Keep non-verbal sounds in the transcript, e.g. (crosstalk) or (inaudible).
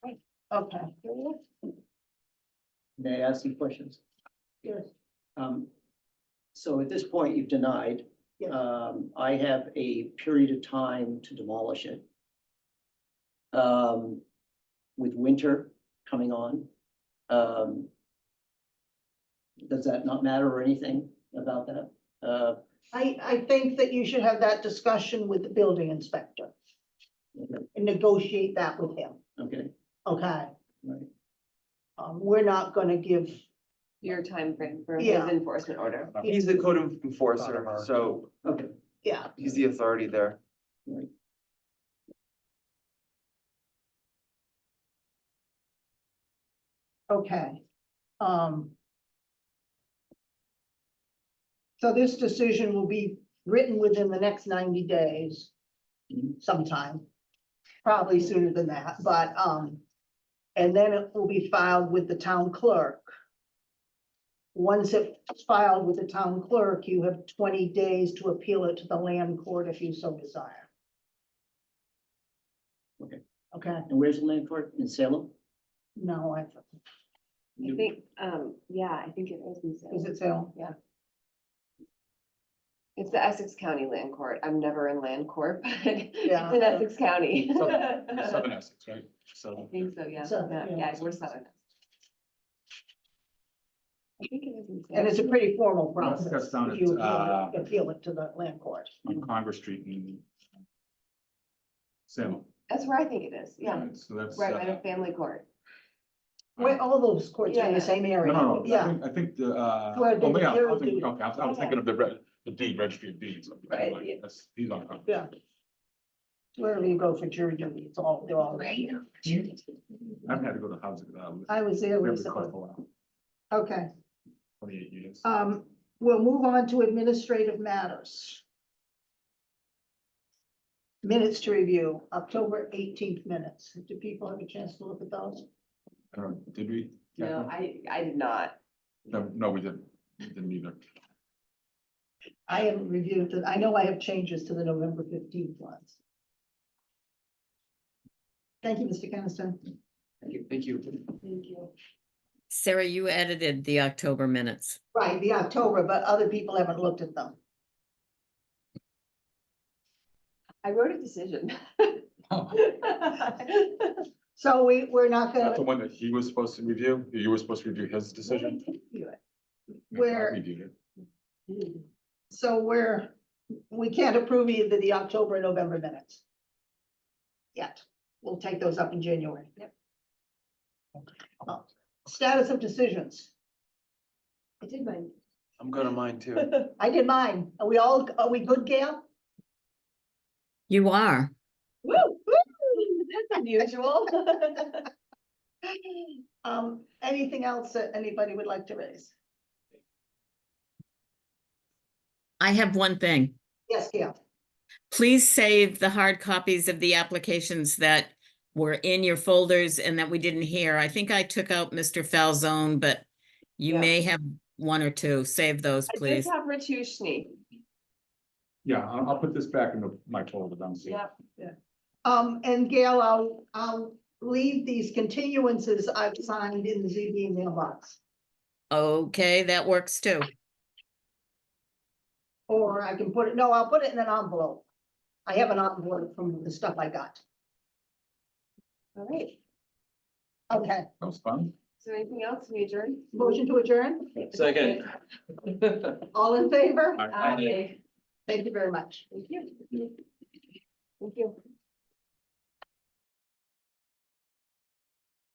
Okay. May I ask some questions? Yes. Um, So at this point, you've denied. Yes. Um, I have a period of time to demolish it. Um, with winter coming on, um, does that not matter or anything about that? Uh, I, I think that you should have that discussion with the building inspector okay, and negotiate that with him, okay, okay? right. Um, we're not gonna give, your timeframe for his Yeah. enforcement order. He's the code enforcer, Not ours. so okay, yeah, he's the authority there. right. okay. Um. So this decision will be written within the next ninety days Mhm. sometime, probably sooner than that, but, um, and then it will be filed with the town clerk. Once it's filed with the town clerk, you have twenty days to appeal it to the land court if you so desire. Okay. Okay, And where's the land court in Salem? no, I, I think, um, yeah, I think it is. in Salem. is it sale? It's the Essex County Land Court. I'm never in land court, (laughs) but Yeah. it's in Essex County. (laughs) I Southern Essex, right? So, think so, yeah. Southern, Yeah, yeah. yeah, we're southern. I think it is. in And it's a Salem. pretty formal No, I process. think that's down if at, you appeal it- uh, Appeal it to the land court. on Congress Street in Salem. That's where I think it is, yeah. right? So that's. Right, uh, by the family court. Where all those courts are in Yeah. the same No, area. no, no, I Yeah, think, I think the, uh, Where the oh, yeah, I bureau was thinking, did it. okay, I was- I was thinking of the red, the deed, registry of deeds. I'm Right, like, yeah. that's- He's on. Congress. Yeah. wherever you go for jury duty, it's all, they're all right. I haven't had to go to housing. uh, we I was there haven't been recently. caught for a while, Okay, Twenty-eight years. um, we'll move on to administrative matters. Minutes to review, October eighteenth minutes. Do people have a chance to look at those? I don't know, Did we? No, I, I did not. No, no, we didn't. We Didn't either. I haven't reviewed it. I know I have changes to the November fifteenth ones. Thank you, Mr. Caniston. Thank you. Thank you. Sarah, you edited the October minutes. Right, the October, but other people haven't looked at them. I wrote a decision. (laughs) So we, we're not That's gonna, the one that he was supposed to review. You were supposed to review his decision. Where- I reviewed it. so we're, we can't approve either the October and November minutes. Yet, we'll take those up in January. Yep. Uh, Status of decisions. I did mine. I'm going to mine too. I did mine. Are we all, are we good, (gasps) Gail? You are. Woo, woo, that's unusual. (laughs) Um, anything else that anybody would like to raise? I have one thing. Yes, Gail. Please save the hard copies of the applications that were in your folders and that we didn't hear. I think I took out Mr. Falzone, but you Yeah. may have one or two. Save those, I did please. have Ritushni, Yeah, I'll, I'll put this back in the- my folder down. so- yeah, Um, and Gail, I'll, I'll leave these continuances I've signed in the ZB mailbox. Okay, that works too. Or I can put it, no, I'll put it in an envelope. I have an envelope from the stuff I got. all right, is Okay, That was fun. there anything else we adjourn? motion to adjourn, Second. all in favor? All right. Aye. Thank you very much. Thank you. Thank you.